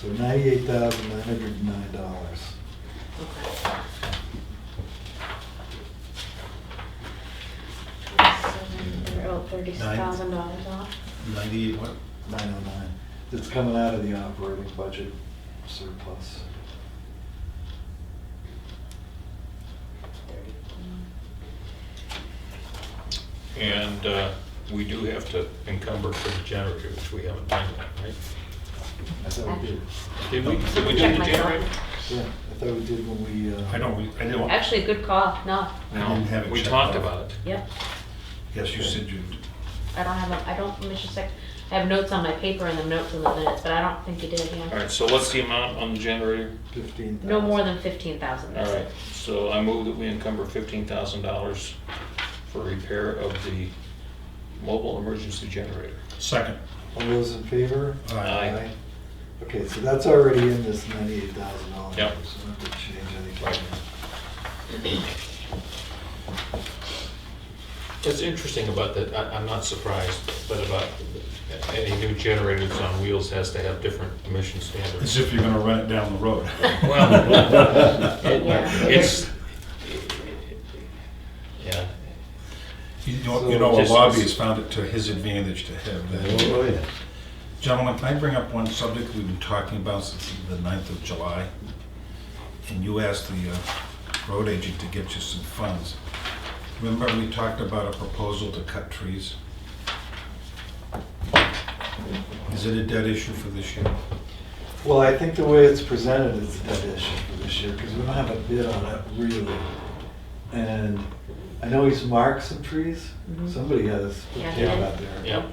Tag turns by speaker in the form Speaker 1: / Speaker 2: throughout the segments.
Speaker 1: So ninety-eight thousand nine hundred and nine dollars.
Speaker 2: Okay.
Speaker 3: They're out thirty thousand dollars off.
Speaker 4: Ninety-eight what?
Speaker 1: Nine oh nine. It's coming out of the operating budget surplus.
Speaker 5: And uh, we do have to encumber for the generator, which we haven't done yet, right?
Speaker 1: I thought we did.
Speaker 5: Did we, did we do
Speaker 3: Check
Speaker 5: the
Speaker 3: my
Speaker 5: generator?
Speaker 1: Yeah, I thought we did when we, uh.
Speaker 4: I don't, I didn't, I
Speaker 3: Actually, good call, no,
Speaker 4: didn't have it
Speaker 5: We
Speaker 4: checked
Speaker 5: talked
Speaker 4: out.
Speaker 5: about it.
Speaker 3: yep,
Speaker 4: Yes, you said you,
Speaker 3: I don't have, a. I don't, Mr. Sec, I have notes on my paper and the notes in the minutes, but I don't think you did,
Speaker 5: All
Speaker 3: yeah.
Speaker 5: right, so what's the amount on the generator?
Speaker 1: Fifteen thousand.
Speaker 3: No more than fifteen thousand,
Speaker 5: All
Speaker 3: that's
Speaker 5: right,
Speaker 3: it.
Speaker 5: so I move that we encumber fifteen thousand dollars for repair of the mobile emergency generator.
Speaker 4: second.
Speaker 1: All those in favor?
Speaker 4: Aye. Aye.
Speaker 1: Okay, so that's already in this ninety-eight thousand dollars.
Speaker 5: Yep.
Speaker 1: So we don't have to change
Speaker 5: Right.
Speaker 1: anything.
Speaker 5: It's interesting about that, I- I'm not surprised, but about any new generator that's on wheels has to have different emission
Speaker 4: As
Speaker 5: standards.
Speaker 4: if you're gonna run it down the road.
Speaker 5: Well, it-
Speaker 3: Yeah.
Speaker 5: it's, yeah,
Speaker 4: You know, you know, a lobbyist found it to his advantage to have
Speaker 5: Oh,
Speaker 4: that.
Speaker 6: yeah.
Speaker 4: Gentlemen, can I bring up one subject we've been talking about since the 9th of July? And you asked the uh, road agent to get you some funds. Remember, we talked about a proposal to cut trees? Is it a dead issue for this year?
Speaker 1: Well, I think the way it's presented is that issue for this year, because we don't have a bid on it, really. And I know he's marked some trees,
Speaker 3: Mhm.
Speaker 1: somebody has a
Speaker 3: Yeah,
Speaker 1: tail
Speaker 3: yeah.
Speaker 1: out there.
Speaker 5: yeah. Oh,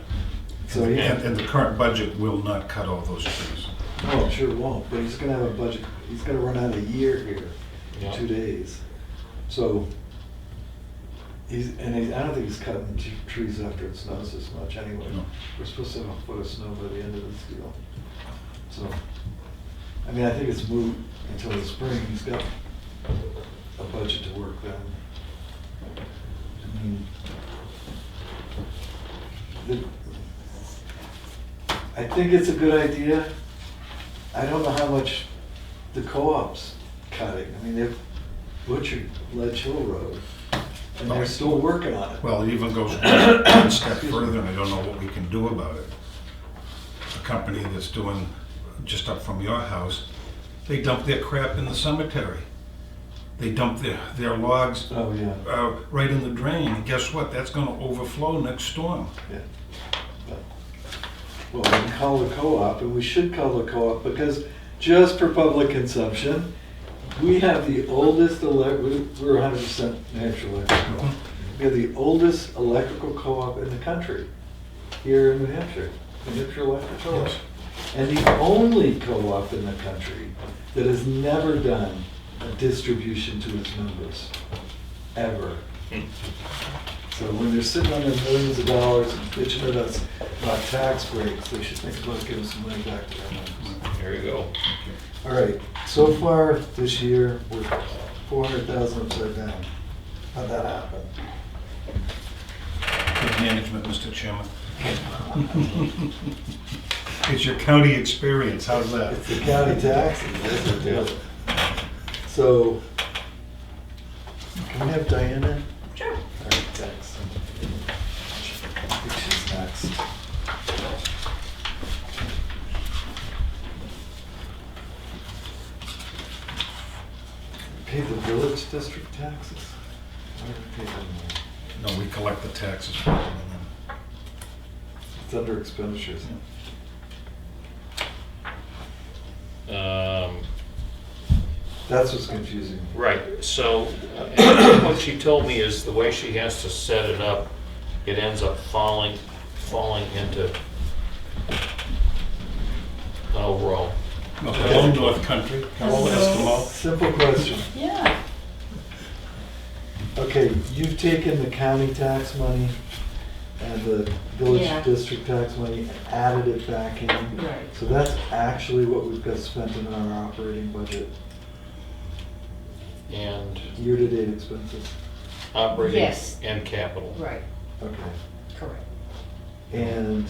Speaker 1: So he
Speaker 4: And and the current budget will not cut all those trees.
Speaker 1: no, it Oh, sure won't, but he's gonna have a budget, he's gonna run out of a year here, in
Speaker 5: Yeah.
Speaker 1: two days. So, he's, and he- I don't think he's cutting t- trees after it snows as much anyway.
Speaker 4: No.
Speaker 1: We're supposed to have a foot of snow by the end of this deal. So, I mean, I think it's moot until the spring, he's got a budget to work then. I mean, the- I think it's a good idea. I don't know how much the co-op's cutting. I mean, they've butchered Ledge Hill Road, and they're still working on it.
Speaker 4: Well, it even goes one step further, and I don't know what we can do about it. A company that's doing, just up from your house, they dump their crap in the cemetery. They dump their, their logs
Speaker 1: Oh, yeah,
Speaker 4: uh, right in the drain, and guess what? That's gonna overflow next storm.
Speaker 1: yeah. But- Well, we can call the co-op, and we should call the co-op, because just for public consumption, we have the oldest elec, we- we're hundred percent natural electric co-op. We have the oldest electrical co-op in the country, here in New Hampshire, New Hampshire Electric Co-op.
Speaker 4: Yes.
Speaker 1: And the only co-op in the country that has never done a distribution to its members, ever. So when they're sitting on their millions of dollars and bitching at us about tax breaks, they should think about giving some money back to their members.
Speaker 5: There you go.
Speaker 1: All right, so far this year, we're four hundred thousand upside down. How'd that happen?
Speaker 4: Good management, Mr. Chairman. It's your county experience, how's that?
Speaker 1: It's the county taxes, that's what does it. So, can we have Diana?
Speaker 3: Sure.
Speaker 1: All right, thanks. I think she's next. Pay the village district taxes? Why do we pay them all?
Speaker 4: No, we collect the taxes. from them.
Speaker 1: It's under expenditures.
Speaker 5: Um,
Speaker 1: That's what's confusing. me.
Speaker 5: Right, so uh, what she told me is the way she has to set it up, it ends up falling, falling into an overall.
Speaker 4: No, Hello, North Country. Hello, Eskimo.
Speaker 1: Simple question.
Speaker 3: Yeah.
Speaker 1: Okay, you've taken the county tax money and the
Speaker 3: Yeah.
Speaker 1: village district tax money and added it back in.
Speaker 3: Right.
Speaker 1: So that's actually what we've got spent in our operating budget,
Speaker 5: And
Speaker 1: year-to-date expenses.
Speaker 5: operating
Speaker 3: Yes.
Speaker 5: and capital.
Speaker 3: Right,
Speaker 1: Okay.
Speaker 3: correct.
Speaker 1: And